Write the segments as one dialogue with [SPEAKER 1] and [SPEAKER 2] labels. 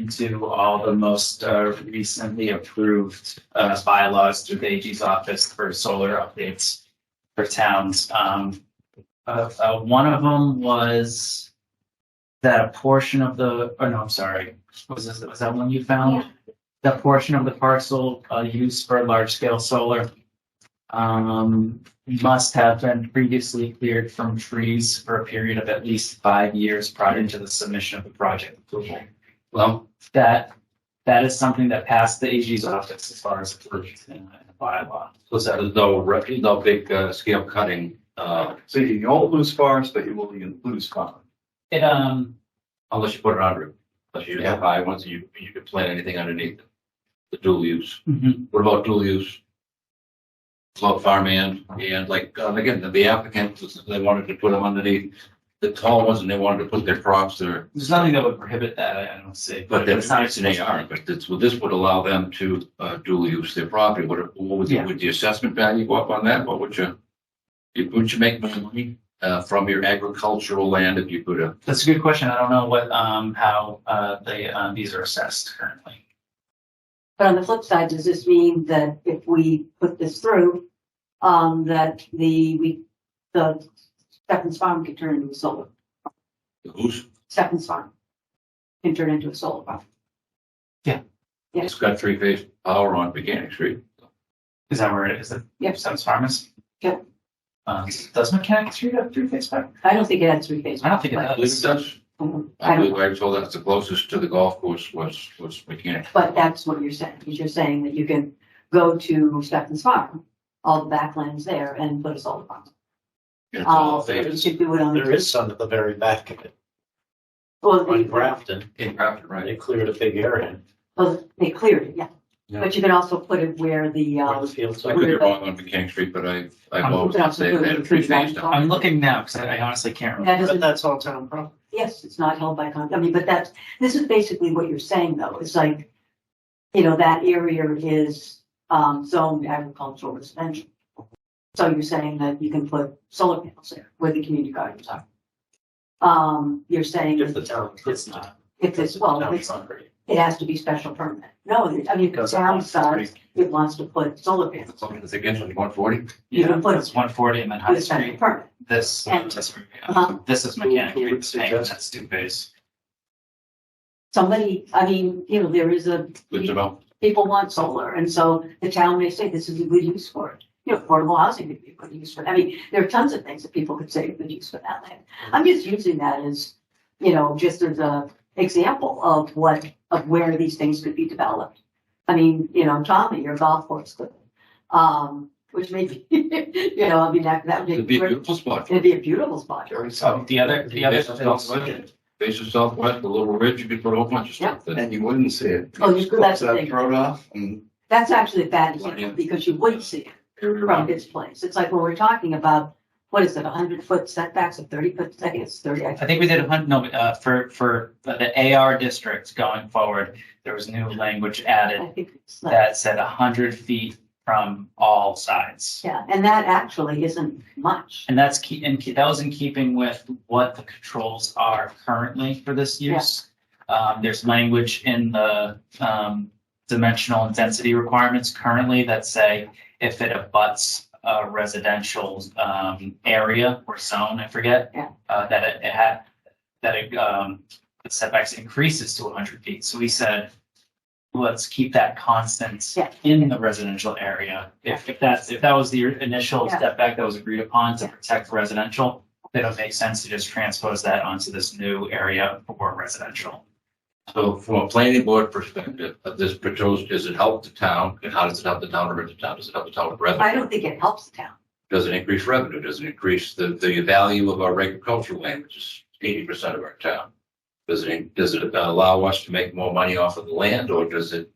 [SPEAKER 1] into all the most uh, recently approved uh, bylaws through the AG's office for solar updates for towns. Um, uh, uh, one of them was that a portion of the, oh no, I'm sorry, was this, was that one you
[SPEAKER 2] Um,
[SPEAKER 1] found? That portion of the parcel uh, used for large scale solar um, must have been previously cleared from trees for a period of at least five years prior to the submission of the project approval. Well, that, that is something that passed the AG's office as far as approved in the bylaw.
[SPEAKER 3] So that is no, re- no big uh, scale cutting, uh,
[SPEAKER 4] So you don't lose forest, but you will lose common.
[SPEAKER 1] It, um,
[SPEAKER 3] unless you put it on roof. Unless you have high ones, you, you could plant anything underneath it. The dual use.
[SPEAKER 2] Mm-hmm.
[SPEAKER 3] What about dual use? Slow farmland and like, um, again, the- the applicant, they wanted to put them underneath the tall ones and they wanted to put their crops there.
[SPEAKER 1] there's nothing that would prohibit that, I I don't see.
[SPEAKER 3] But that's
[SPEAKER 1] it's
[SPEAKER 3] not an AR, but this, well, this would allow them to uh, dual use their property. What, what would,
[SPEAKER 1] Yeah.
[SPEAKER 3] would the assessment value go up on that? What would you? you- Would you make money uh, from your agricultural land if you put a
[SPEAKER 1] That's a good question. I don't know what, um, how, uh, they, um, these are assessed currently.
[SPEAKER 2] But on the flip side, does this mean that if we put this through, um, that the, we, the Stephens Farm can turn into a solar,
[SPEAKER 3] who's
[SPEAKER 2] Stephens Farm can turn into a solar farm? Yeah.
[SPEAKER 3] It's got three phase power on Mechanic Street.
[SPEAKER 1] Is that where it is? It
[SPEAKER 2] Yep.
[SPEAKER 1] Sounds farmers?
[SPEAKER 2] Yep.
[SPEAKER 1] Um, does Mechanic Street have three phase power?
[SPEAKER 2] I don't think it had three phases.
[SPEAKER 1] I don't think it
[SPEAKER 3] I believe
[SPEAKER 1] does.
[SPEAKER 3] it does.
[SPEAKER 2] Um, I
[SPEAKER 3] I
[SPEAKER 2] don't
[SPEAKER 3] believe
[SPEAKER 2] know.
[SPEAKER 3] I was told that's the closest to the golf course was, was Mechanic.
[SPEAKER 2] But that's what you're saying, is you're saying that you can go to Stephens Farm, all the backlands there and put a solar farm.
[SPEAKER 3] It's all
[SPEAKER 2] Uh, you
[SPEAKER 3] phases.
[SPEAKER 2] should do it on.
[SPEAKER 5] There is some at the very back of it,
[SPEAKER 2] Well,
[SPEAKER 5] on
[SPEAKER 2] they,
[SPEAKER 5] Grafton,
[SPEAKER 3] In Grafton, right?
[SPEAKER 5] they cleared a big area,
[SPEAKER 2] well, they cleared it, yeah.
[SPEAKER 3] Yeah.
[SPEAKER 2] But you can also put it where the,
[SPEAKER 5] where
[SPEAKER 2] uh,
[SPEAKER 5] the fields
[SPEAKER 3] I
[SPEAKER 5] are.
[SPEAKER 3] could be wrong on Mechanic Street, but I, I've always
[SPEAKER 2] But
[SPEAKER 3] been
[SPEAKER 2] also
[SPEAKER 3] saying
[SPEAKER 2] the
[SPEAKER 3] they had three phase.
[SPEAKER 2] Grafton.
[SPEAKER 1] I'm looking now because I I honestly can't remember.
[SPEAKER 2] that
[SPEAKER 5] But
[SPEAKER 2] doesn't
[SPEAKER 5] that's all town property.
[SPEAKER 2] Yes, it's not held by contract. I mean, but that's, this is basically what you're saying though. It's like, you know, that area is um zoned agricultural residential. So you're saying that you can put solar panels there where the community gardens are. Um, you're saying
[SPEAKER 5] If the town.
[SPEAKER 1] It's not.
[SPEAKER 2] if it's, well,
[SPEAKER 5] Town
[SPEAKER 2] if it's,
[SPEAKER 5] property.
[SPEAKER 2] it has to be special permit. No, I mean, if the town decides it wants to put solar panels,
[SPEAKER 3] Something that's against one forty.
[SPEAKER 2] You
[SPEAKER 1] Yeah,
[SPEAKER 2] can put-
[SPEAKER 1] it's one forty and then High
[SPEAKER 2] it's special
[SPEAKER 1] Street.
[SPEAKER 2] permit.
[SPEAKER 1] This,
[SPEAKER 2] And-
[SPEAKER 1] this,
[SPEAKER 2] Uh-huh.
[SPEAKER 1] this is Mechanic
[SPEAKER 5] Who- who would
[SPEAKER 1] Street.
[SPEAKER 5] suggest-
[SPEAKER 1] That's two phase.
[SPEAKER 2] Somebody, I mean, you know, there is a.
[SPEAKER 3] Good to know.
[SPEAKER 2] people want solar, and so the town may say this is a good use for it. You know, affordable housing could be a good use for it. I mean, there are tons of things that people could say are good use for that land. I'm just using that as, you know, just as a example of what, of where these things could be developed. I mean, you know, Tommy, your golf course could, um, which may be, you know, I mean, that, that
[SPEAKER 3] It'd
[SPEAKER 2] would
[SPEAKER 3] be
[SPEAKER 2] be,
[SPEAKER 3] a beautiful spot.
[SPEAKER 2] it'd be a beautiful spot.
[SPEAKER 1] So the other, the other.
[SPEAKER 3] Based on Southwest, based on Southwest, the little ridge, you could put a whole bunch of stuff there.
[SPEAKER 6] And you wouldn't see it.
[SPEAKER 2] Oh, you- that's the thing.
[SPEAKER 6] Thrown off and
[SPEAKER 2] That's actually a bad example because you wouldn't see it.
[SPEAKER 3] Area
[SPEAKER 2] from
[SPEAKER 3] around.
[SPEAKER 2] this place. It's like when we're talking about, what is it, a hundred foot setbacks, a thirty foot, I think it's thirty.
[SPEAKER 1] I think we did a hundred, no, uh, for, for the AR districts going forward, there was new language
[SPEAKER 2] I
[SPEAKER 1] added
[SPEAKER 2] think it's like,
[SPEAKER 1] that said hundred feet from all sides.
[SPEAKER 2] yeah, and that actually isn't much.
[SPEAKER 1] And that's key, and that was in keeping with what the controls are currently for this use. Um, there's language in the, um, dimensional and density requirements currently that say if it abuts a residential, um, area or zone, I forget.
[SPEAKER 2] Yeah.
[SPEAKER 1] Uh, that it, it had, that it, um, the setbacks increases to hundred feet. So we said, let's keep that constant
[SPEAKER 2] Yeah.
[SPEAKER 1] in the residential area. If, if that's, if that was the initial
[SPEAKER 2] Yeah.
[SPEAKER 1] step back that was agreed upon to protect residential, then it would make sense to just transpose that onto this new area for residential.
[SPEAKER 3] So from a planning board perspective, of this proposed, does it help the town? And how does it help the town or hurt the town? Does it help the town with revenue?
[SPEAKER 2] I don't think it helps the town.
[SPEAKER 3] doesn't increase revenue, doesn't increase the, the value of our agricultural land, which is eighty percent of our town. Does it, does it allow us to make more money off of the land or does it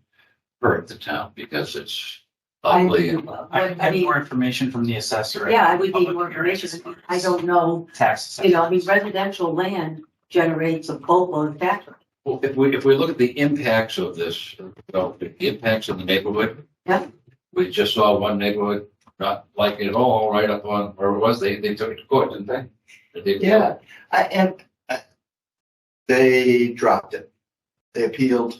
[SPEAKER 3] hurt the town because it's
[SPEAKER 2] I
[SPEAKER 3] ugly?
[SPEAKER 2] don't
[SPEAKER 3] and-
[SPEAKER 2] know.
[SPEAKER 1] I
[SPEAKER 2] But, I
[SPEAKER 1] have
[SPEAKER 2] mean,
[SPEAKER 1] more information from the assessor.
[SPEAKER 2] yeah, I would need
[SPEAKER 1] Public
[SPEAKER 2] more
[SPEAKER 1] areas as
[SPEAKER 2] information.
[SPEAKER 1] far
[SPEAKER 2] I
[SPEAKER 1] as
[SPEAKER 2] don't know,
[SPEAKER 1] Tax.
[SPEAKER 2] you know, I mean, residential land generates a boatload of tax. revenue.
[SPEAKER 3] Well, if we, if we look at the impacts of this, well, the impacts on the neighborhood.
[SPEAKER 2] Yeah.
[SPEAKER 3] We just saw one neighborhood not like it at all, right up on, where it was, they, they took it to court, didn't they? they? did.
[SPEAKER 6] yeah, I, and I- they uh, dropped it. They appealed.